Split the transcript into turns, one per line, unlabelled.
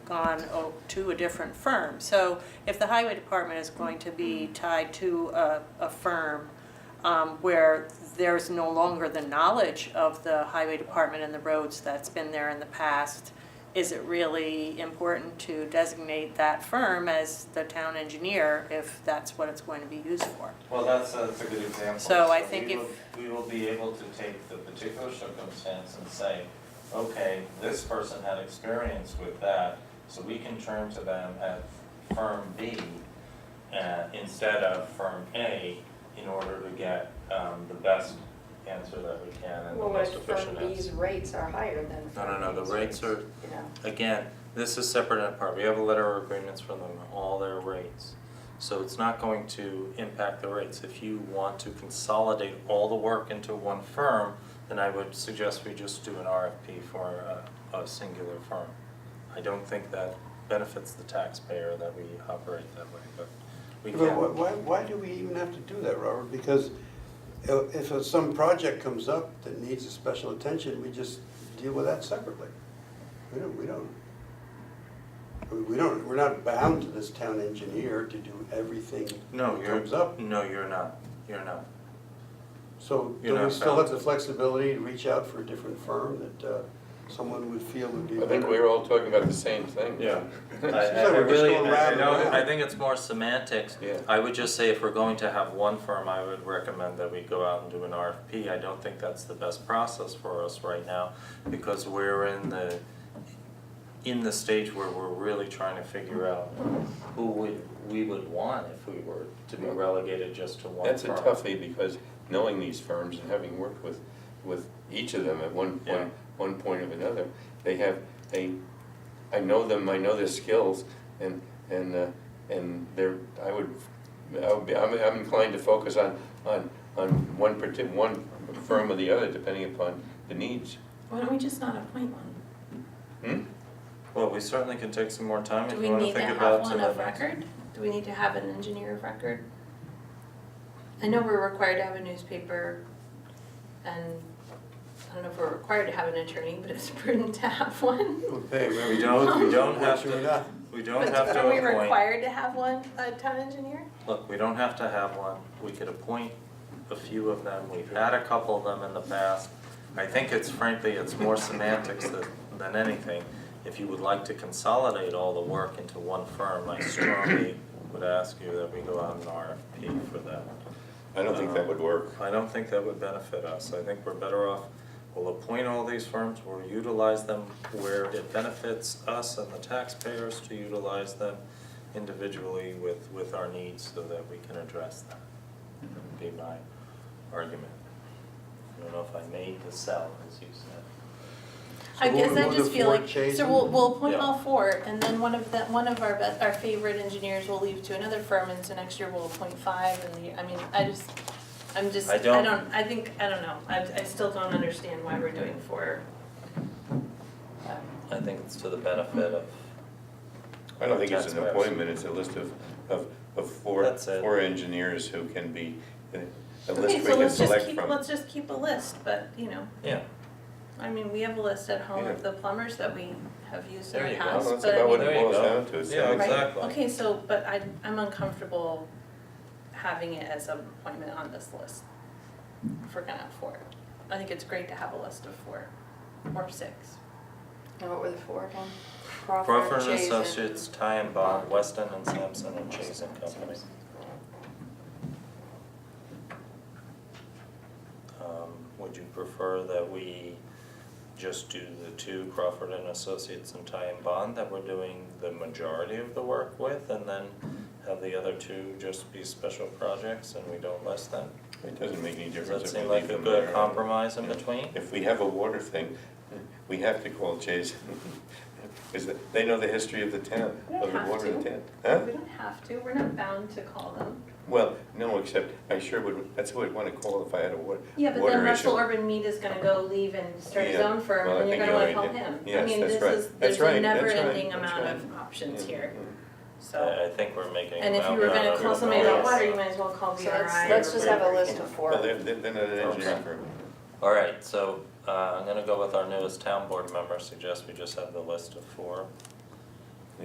gone oh, to a different firm. So if the highway department is going to be tied to a, a firm um, where there's no longer the knowledge of the highway department and the roads that's been there in the past, is it really important to designate that firm as the town engineer if that's what it's going to be used for?
Well, that's, that's a good example.
So I think
we
if-
will- We will be able to take the particular circumstance and say, okay, this person had experience with that, so we can turn to them at firm B uh, instead of firm A in order to get um, the best answer that we can and the
Well, what
most
if firm
efficient answer.
B's rates are higher than
No, no,
firm
no,
A's
the rates are,
You know,
again, this is separate and apart, we have a letter of agreements from them, all their rates. So it's not going to impact the rates, if you want to consolidate all the work into one firm, then I would suggest we just do an RFP for a, a singular firm. I don't think that benefits the taxpayer that we operate that way, but we
But why,
can.
why, why do we even have to do that, Robert? Because i- if it's some project comes up that needs a special attention, we just deal with that separately. We don't, we don't, I mean, we don't, we're not bound to this town engineer to do everything
No,
that comes
you're,
up.
no, you're not, you're not.
So
You're
do we
not
still have
bound.
the flexibility to reach out for a different firm that uh, someone would feel would be
I think we were all talking about the same thing.
Yeah. I,
Seems
I-
like
I
we're just
really,
going
I- I
round and
don't-
round.
I think it's more semantics.
Yeah.
I would just say if we're going to have one firm, I would recommend that we go out and do an RFP. I don't think that's the best process for us right now because we're in the, in the stage where we're really trying to figure out who we, we would want if we were to be relegated just to one firm.
That's a toughie because knowing these firms and having worked with, with each of them at one
Yeah.
point, one point of another, they have, they, I know them, I know their skills and, and, uh, and they're, I would, I would be, I'm, I'm inclined to focus on, on, on one parti, one firm or the other depending upon the needs.
Why don't we just not appoint one?
Hmm?
Well, we certainly can take some more time
Do
if
we
you wanna
need to
think
have
about some
one
of
of
the-
record? Do we need to have an engineer of record? I know we're required to have a newspaper and I don't know if we're required to have an attorney, but it's prudent to have one.
Okay,
We don't, we don't have
Sure
to,
enough.
we don't
But
have to appoint.
Are we required to have one, a town engineer?
Look, we don't have to have one, we could appoint a few of them, we've had a couple of them in the past. I think it's frankly, it's more semantics than, than anything. If you would like to consolidate all the work into one firm, I strongly would ask you that we go out an RFP for that.
I don't think that would work.
I don't think that would benefit us, I think we're better off, we'll appoint all these firms, we'll utilize them where it benefits us and the taxpayers to utilize them individually with, with our needs so that we can address them. That would be my argument. I don't know if I made the sell, as you said.
I
So
guess
will-
I
will
just
the
feel
board
like,
change
so we'll,
them?
we'll appoint
Yeah.
all four, and then one of the, one of our best, our favorite engineers will leave to another firm, and so next year we'll appoint five, and the, I mean, I just, I'm just,
I
I
don't-
don't, I think, I don't know, I, I still don't understand why we're doing four. Um,
I think it's to the benefit of.
I don't think it's an
Taxpayers.
appointment, it's a list of, of, of four,
That's it.
four engineers who can be, uh, a list
Okay,
we
so
can
let's just
select
keep,
from.
let's just keep a list, but, you know,
Yeah,
I mean, we have a list at home of the plumbers that we have used in
There
the
you go.
past,
Well, that's
but I
about
mean,
what
There
it
you
boils
go.
down to, it's
Yeah,
not-
Right.
exactly.
Okay, so, but I, I'm uncomfortable having it as an appointment on this list. If we're gonna have four. I think it's great to have a list of four or six.
and what were the four again?
Crawford and
Chazen.
Associates, Ty and Bond, Weston and Sampson and Chase and Company. Um, Would you prefer that we just do the two Crawford and Associates and Ty and Bond that we're doing the majority of the work with? And then have the other two just be special projects and we don't list them?
It doesn't make any
Does
difference
that
if
seem
we leave
like a
them
good
there.
compromise in between?
If we have a water thing, we have to call Chase, because they know the history of the town,
We don't
of the
have
water in the
to.
town.
We
Huh?
don't have to, we're not bound to call them.
Well, no, except I sure would, that's who I'd want to call if I had a wa- water issue.
Yeah, but then Russell Urban Mead is gonna go leave and start his
Yeah,
own firm
well, I
and you're
think
gonna wanna
you
call
already
him.
did. Yes, that's
I
right.
mean, this is,
That's
there's
right,
a
that's
never
right,
ending
that's
amount
right.
of options
Yeah,
here,
yeah.
so.
I I think we're making.
And if you
about
were
that
gonna
out
call
of
somebody about
both.
water, you might as well call VRI.
So let's,
or
let's just have a
whatever, you
list
know.
of four.
Well, they're, they're they're
Oh,
not an engineering
Okay.
firm.
All right, so uh, I'm gonna go with our newest town board member, suggest we just have the list of four